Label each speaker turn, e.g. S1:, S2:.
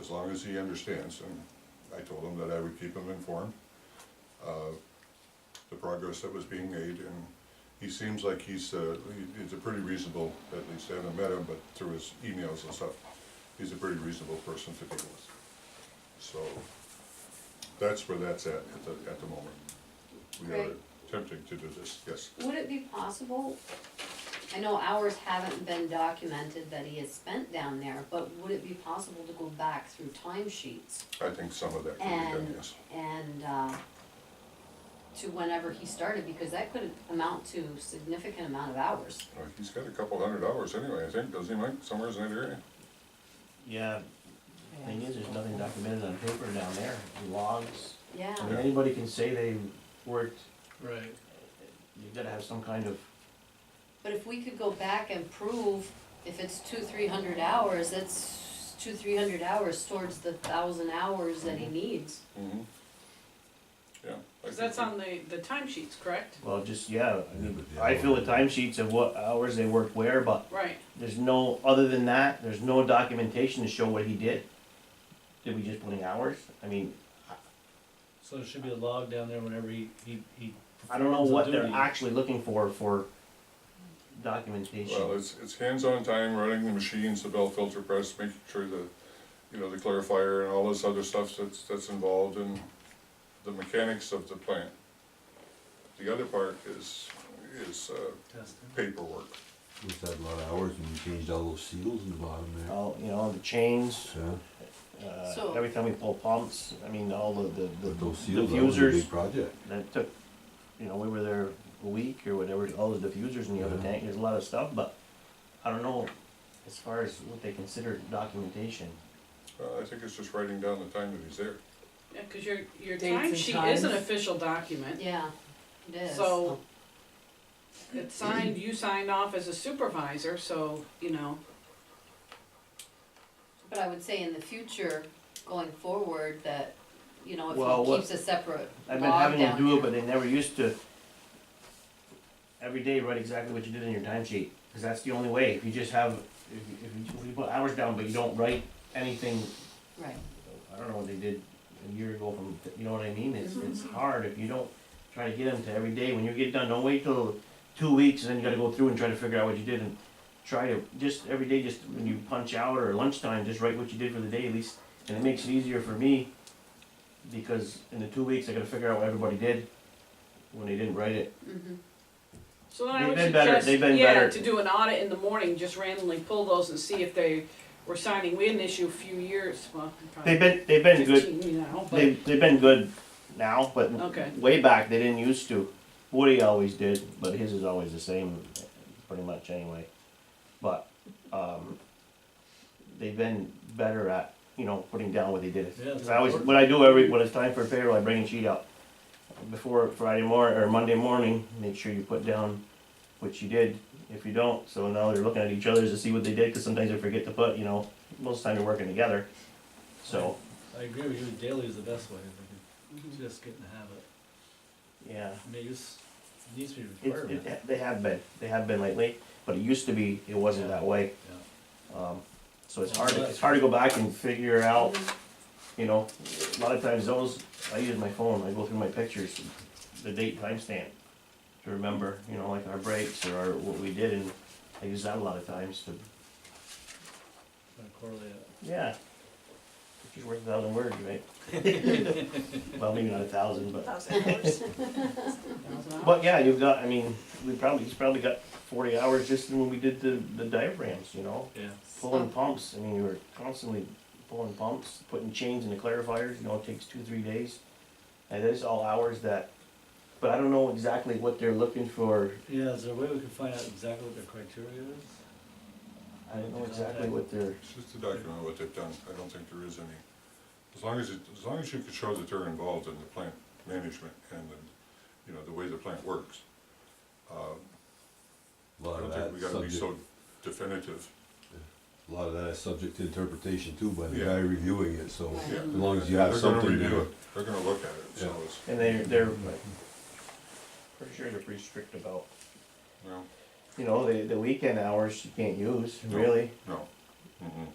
S1: as long as he understands, and I told him that I would keep him informed of the progress that was being made, and he seems like he's, uh, he- he's a pretty reasonable, at least I haven't met him, but through his emails and stuff, he's a pretty reasonable person to deal with. So, that's where that's at, at the, at the moment. We are
S2: Right.
S1: attempting to do this, yes.
S2: Would it be possible, I know hours haven't been documented that he has spent down there, but would it be possible to go back through timesheets
S1: I think some of that can be done,
S2: and,
S1: yes.
S2: and, uh, to whenever he started, because that could amount to significant amount of hours.
S1: Well, He's got a couple hundred hours anyway, I think, doesn't he, Mike, somewhere in that area?
S3: Yeah, thing is, there's nothing documented on paper down there, logs,
S2: Yeah,
S3: I mean, anybody can say they worked,
S4: Right.
S3: you've gotta have some kind of,
S2: but if we could go back and prove if it's two, three hundred hours, that's two, three hundred hours towards the thousand hours that he needs.
S1: Mm-hmm. Yeah. I
S5: Cause
S1: think
S5: that's
S1: we-
S5: on the, the timesheets, correct?
S3: well, just, yeah, I mean, I fill the timesheets of what hours they worked where, but
S5: Right,
S3: there's no, other than that, there's no documentation to show what he did. Did we just put in hours? I mean,
S4: So there should be a log down there whenever he, he, he.
S3: I don't know
S4: performs a
S3: what they're
S4: duty.
S3: actually looking for, for
S1: Well,
S3: documentation.
S1: it's, it's hands-on time, running the machines, the bell filter press, making sure the, you know, the clarifier and all this other stuff that's, that's involved in the mechanics of the plant. The other part is, is uh,
S4: Testing.
S1: paperwork.
S6: We've had a lot of hours and we changed all those seals in the bottom there.
S3: All, you know, the chains,
S6: So,
S3: uh,
S2: So-
S3: every time we pull pumps, I mean, all the, the, the
S6: but those seals, that was a
S3: diffusers.
S6: big project.
S3: that took, you know, we were there a week or whatever, all the diffusers in the other
S6: Yeah.
S3: tank, there's a lot of stuff, but I don't know as far as what they consider documentation.
S1: Uh, I think it's just writing down the time that he's there.
S5: yeah, cause your, your
S7: Dates and
S5: timesheet is an
S7: times.
S5: official document.
S2: Yeah, it is.
S5: So-
S7: Oh.
S5: It's signed, you signed off as a supervisor, so, you know,
S2: But I would say in the future, going forward, that, you know,
S3: Well,
S2: if he
S3: what-
S2: keeps a separate
S3: I've
S2: log down
S3: been having to do it, but
S2: there-
S3: they never used to. Every day, write exactly what you did in your timesheet, cause that's the only way, if you just have, if, you- if you, if you put hours down, but you don't write anything,
S2: Right,
S3: I don't know what they did a year ago from, you know what I mean, it's, it's hard if you don't try to get them to every day, when you get done, don't wait till two weeks, and then you gotta go through and try to figure out what you did, and try to, just every day, just when you punch out or lunchtime, just write what you did for the day at least, and it makes it easier for me, because in the two weeks, I gotta figure out what everybody did, when they didn't write it,
S2: hmm
S5: so then I
S3: They've
S5: would
S3: been better-
S5: suggest,
S3: they've been
S5: yeah,
S3: better.
S5: to do an audit in the morning, just randomly pull those and see if they were signing. We had an issue a few years, well,
S3: they've
S5: probably
S3: been, they've been good,
S5: fifteen, you know,
S3: They,
S5: but,
S3: they've been good now, but
S5: Okay.
S3: way back they didn't used to. Woody always did, but his is always the same, pretty much anyway. But um, they've been better at you know putting down what they did.
S4: Yeah, it's
S3: 'Cause I always what I do every when it's time for payroll, I bring a sheet out before Friday morning or Monday morning. Make sure you put down what you did. If you don't, so now they're looking at each other's to see what they did because sometimes they forget to put. You know, most of the time they're working together, so.
S4: I agree with you, daily is the best way, if we
S5: Mhm.
S4: can just get in the habit.
S3: Yeah.
S4: I mean, it's, it needs to be a
S3: It,
S4: requirement.
S3: it, they have been, they have been lately, but it used to be, it wasn't that way. Um, so it's hard, to- it's hard to go back and figure out, you know, a lot of times those, I use my phone, I go through my pictures, the date timestamp to remember, you know, like our breaks or our, what we did, and I use that a lot of times to,
S4: Gonna correlate it.
S3: yeah. Pictures worth a thousand words, right? Well, maybe not a thousand, but. But yeah, you've got, I mean, we probably, he's probably got forty hours just when we did the, the diagrams, you know?
S4: Yeah.
S3: Pulling pumps, I mean, you were constantly pulling pumps, putting chains in the clarifiers, you know, it takes two, three days. And it's all hours that, but I don't know exactly what they're looking for,
S4: Yeah, is there a way we can find out exactly what their criteria is?
S3: I don't know exactly what they're,
S1: It's just to document what they've done, I don't think there is any, as long as, it- as long as you can show that they're involved in the plant management and, the- you know, the way the plant works. Uh,
S6: A lot
S1: I
S6: of
S1: don't think we
S6: that
S1: gotta be
S6: subject,
S1: so definitive.
S6: a lot of that is subject to interpretation too by the
S1: Yeah.
S6: guy reviewing it, so
S2: Right.
S1: Yeah.
S6: as long as you have
S1: They're gonna
S6: something
S1: review
S6: there.
S1: it. They're gonna look at it, so
S6: Yeah.
S1: it's,
S3: and they're, they're, like, pretty sure they're pretty strict about,
S1: no,
S3: you know, the, the weekend hours you can't use,
S1: No. Mm-hmm.
S3: really.
S1: no. Mm-mm.